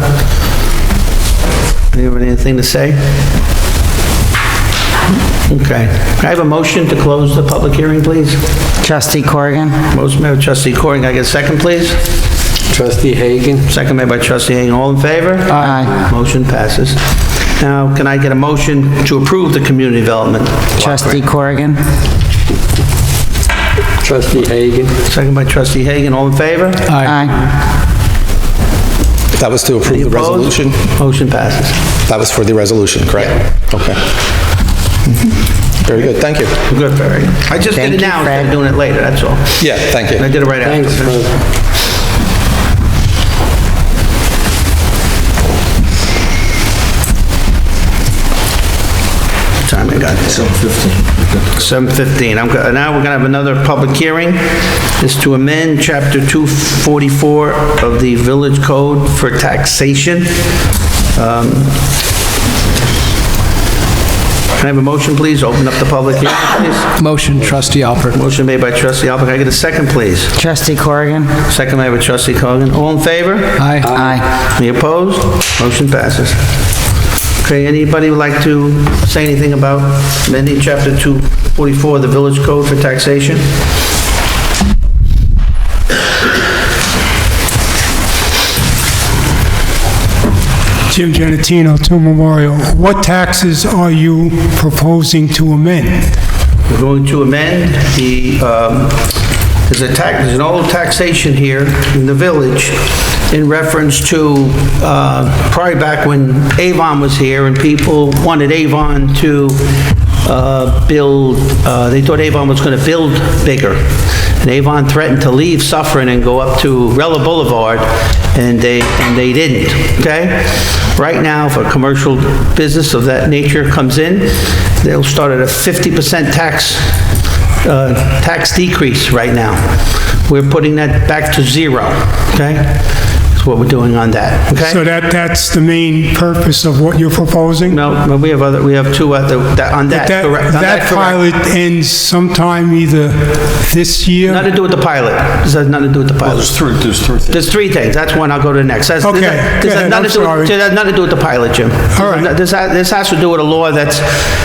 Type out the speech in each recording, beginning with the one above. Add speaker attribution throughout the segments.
Speaker 1: Sir? Anyone Uh, have anything to say? Okay. Can I have a motion to close the public hearing, please?
Speaker 2: Trustee Corrigan?
Speaker 1: Motion made by trustee Corin, can I get a second, please?
Speaker 3: Trustee Hagan?
Speaker 1: Second made by trustee Hagan, all in favor?
Speaker 2: Aye.
Speaker 1: Motion passes. Now, can I get a motion to approve the community development? block
Speaker 2: Trustee
Speaker 1: grant?
Speaker 2: Corrigan?
Speaker 3: Trustee Hagan?
Speaker 1: Second by trustee Hagan, all in favor?
Speaker 2: Aye.
Speaker 4: That was to approve the
Speaker 1: Opposed?
Speaker 4: resolution?
Speaker 1: Motion passes.
Speaker 4: That was for the resolution, correct? Okay. Very good, thank you.
Speaker 1: Good, Barry. I just did
Speaker 2: Thank
Speaker 1: it
Speaker 2: you,
Speaker 1: now instead of
Speaker 2: Fred.
Speaker 1: doing it later, that's all.
Speaker 4: Yeah, thank
Speaker 1: And I
Speaker 4: you.
Speaker 1: did it right after.
Speaker 3: Thanks, Fred.
Speaker 1: time I got? 7:15. 7:15. I'm, go- now we're gonna have another public hearing. It's to amend Chapter 244 of the Village Code for taxation. Um, Can I have a motion, please? Open up the public hearing, please.
Speaker 5: Motion, trustee Alpert.
Speaker 1: Motion made by trustee Alpert. Can I get a second, please?
Speaker 2: Trustee Corrigan?
Speaker 1: Second made by trustee Cogan. All in favor?
Speaker 5: Aye.
Speaker 2: Aye.
Speaker 1: Any opposed? Motion passes. Okay, anybody would like to say anything about amending Chapter 244 of the Village Code for taxation?
Speaker 6: Jim Genatino, 2 Memorial. What taxes are you proposing to amend?
Speaker 1: We're going to amend the, um, there's a tax, there's an old taxation here in the village in reference to, uh, probably back when Avon was here and people wanted Avon to uh, build, uh, they thought Avon was going to build bigger. And Avon threatened to leave Suffering and go up to Rella Boulevard, and they, and they didn't, okay? Right now, if a commercial business of that nature comes in, they'll start at a 50% tax uh, tax decrease right now. We're putting that back to zero, okay? That's what we're doing on that,
Speaker 6: So
Speaker 1: okay?
Speaker 6: that, that's the main purpose of what you're proposing?
Speaker 1: No, but we have other, we have two other, that- on that,
Speaker 6: That,
Speaker 1: correct? on
Speaker 6: that
Speaker 1: correct.
Speaker 6: pilot ends sometime either this
Speaker 1: Nothing
Speaker 6: year?
Speaker 1: to do with the pilot. This has nothing to do with
Speaker 6: Oh,
Speaker 1: the pilot. There's three, there's three. There's three things, that's one, I'll go to the next. That's-
Speaker 6: Okay,
Speaker 1: this has- this
Speaker 6: go
Speaker 1: has
Speaker 6: ahead,
Speaker 1: nothing
Speaker 6: I'm
Speaker 1: to do-
Speaker 6: sorry.
Speaker 1: This has nothing to do with the pilot, Jim.
Speaker 6: All right.
Speaker 1: This, ha- this has to do with a law that's,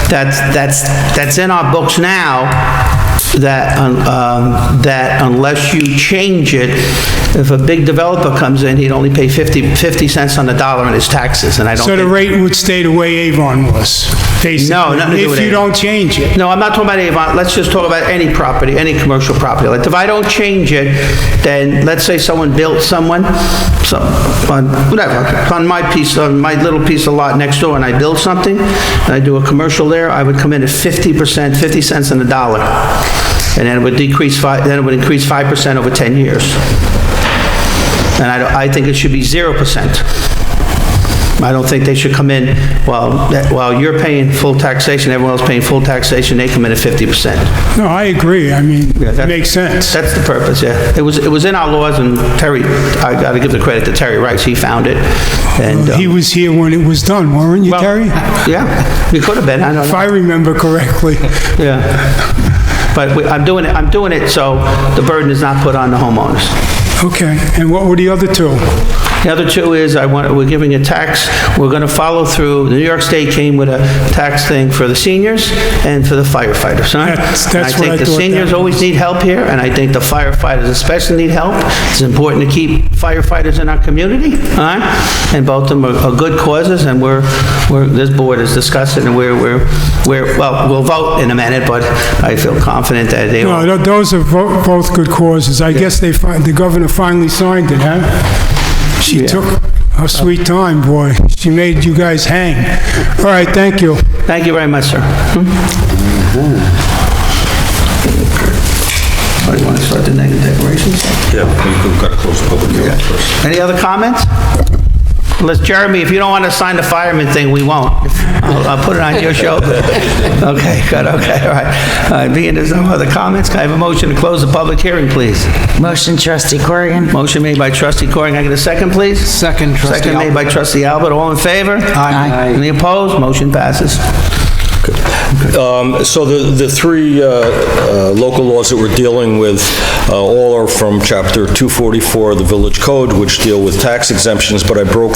Speaker 1: that's, that's, that's in our books now, that, um, that unless you change it, if a big developer comes in, he'd only pay 50, 50 cents on the dollar in his taxes, and I don't
Speaker 6: So the
Speaker 1: think-
Speaker 6: rate would stay the way Avon was, basically?
Speaker 1: nothing to do with
Speaker 6: If you
Speaker 1: Avon.
Speaker 6: don't change it?
Speaker 1: No, I'm not talking about Avon, let's just talk about any property, any commercial property. Like, if I don't change it, then, let's say someone built someone, some, on, whatever, on my piece, on my little piece of lot next door, and I build something, and I do a commercial there, I would come in at 50%, 50 cents on the dollar. And then it would decrease five, then it would increase 5% over 10 years. And I, don't- I think it should be 0%. I don't think they should come in, while, while you're paying full taxation, everyone else paying full taxation, they come in at 50%.
Speaker 6: No, I agree, I mean,
Speaker 1: that-
Speaker 6: it makes sense.
Speaker 1: That's the purpose, yeah. It was, it was in our laws, and Terry, I got to give the credit to Terry Rice, he found it, and... uh,
Speaker 6: He was here when it was done, weren't you,
Speaker 1: well,
Speaker 6: Terry?
Speaker 1: Yeah, we could have been, I don't
Speaker 6: If
Speaker 1: know,
Speaker 6: I remember correctly.
Speaker 1: yeah. But we- I'm doing it, I'm doing it so the burden is not put on the homeowners.
Speaker 6: Okay, and what were the other two?
Speaker 1: The other two is, I want, we're giving a tax, we're going to follow through, New York State came with a tax thing for the seniors and for the firefighters, huh?
Speaker 6: That's-
Speaker 1: And
Speaker 6: that's what I
Speaker 1: think the
Speaker 6: thought that
Speaker 1: seniors always need help here, and I think the firefighters especially need help. It's important to keep firefighters in our community, huh? And both of them are are good causes, and we're, we're, this board is discussing, and we're, we're, we're, well, we'll vote in a minute, but I feel confident that they
Speaker 6: No,
Speaker 1: will.
Speaker 6: tho- those are vo- both good causes. I guess they, fin- the governor finally signed it, huh? She took her sweet time, boy. She made you guys hang. All right, thank you.
Speaker 1: Thank you very much, sir. Hmm? Oh, you want to start the negative declarations?
Speaker 7: Yeah, we've got to close the public hearing first.
Speaker 1: Any other comments? Unless, Jeremy, if you don't want to sign the fireman thing, we won't. I'll I'll put it on your shoulder. Okay, good, okay, all right. All right, being there's no other comments, can I have a motion to close the public hearing, please?
Speaker 2: Motion, Trustee Corrigan?
Speaker 1: Motion made by trustee Coring, I get a second, please?
Speaker 5: Second, trustee
Speaker 1: Second made
Speaker 5: Alpert.
Speaker 1: by trustee Albert, all in favor?
Speaker 2: Aye.
Speaker 1: Any opposed? Motion passes.
Speaker 7: Um, So the, the three uh, uh, local laws that we're dealing with, uh, all are from Chapter 244 of the Village Code, which deal with tax exemptions, but I broke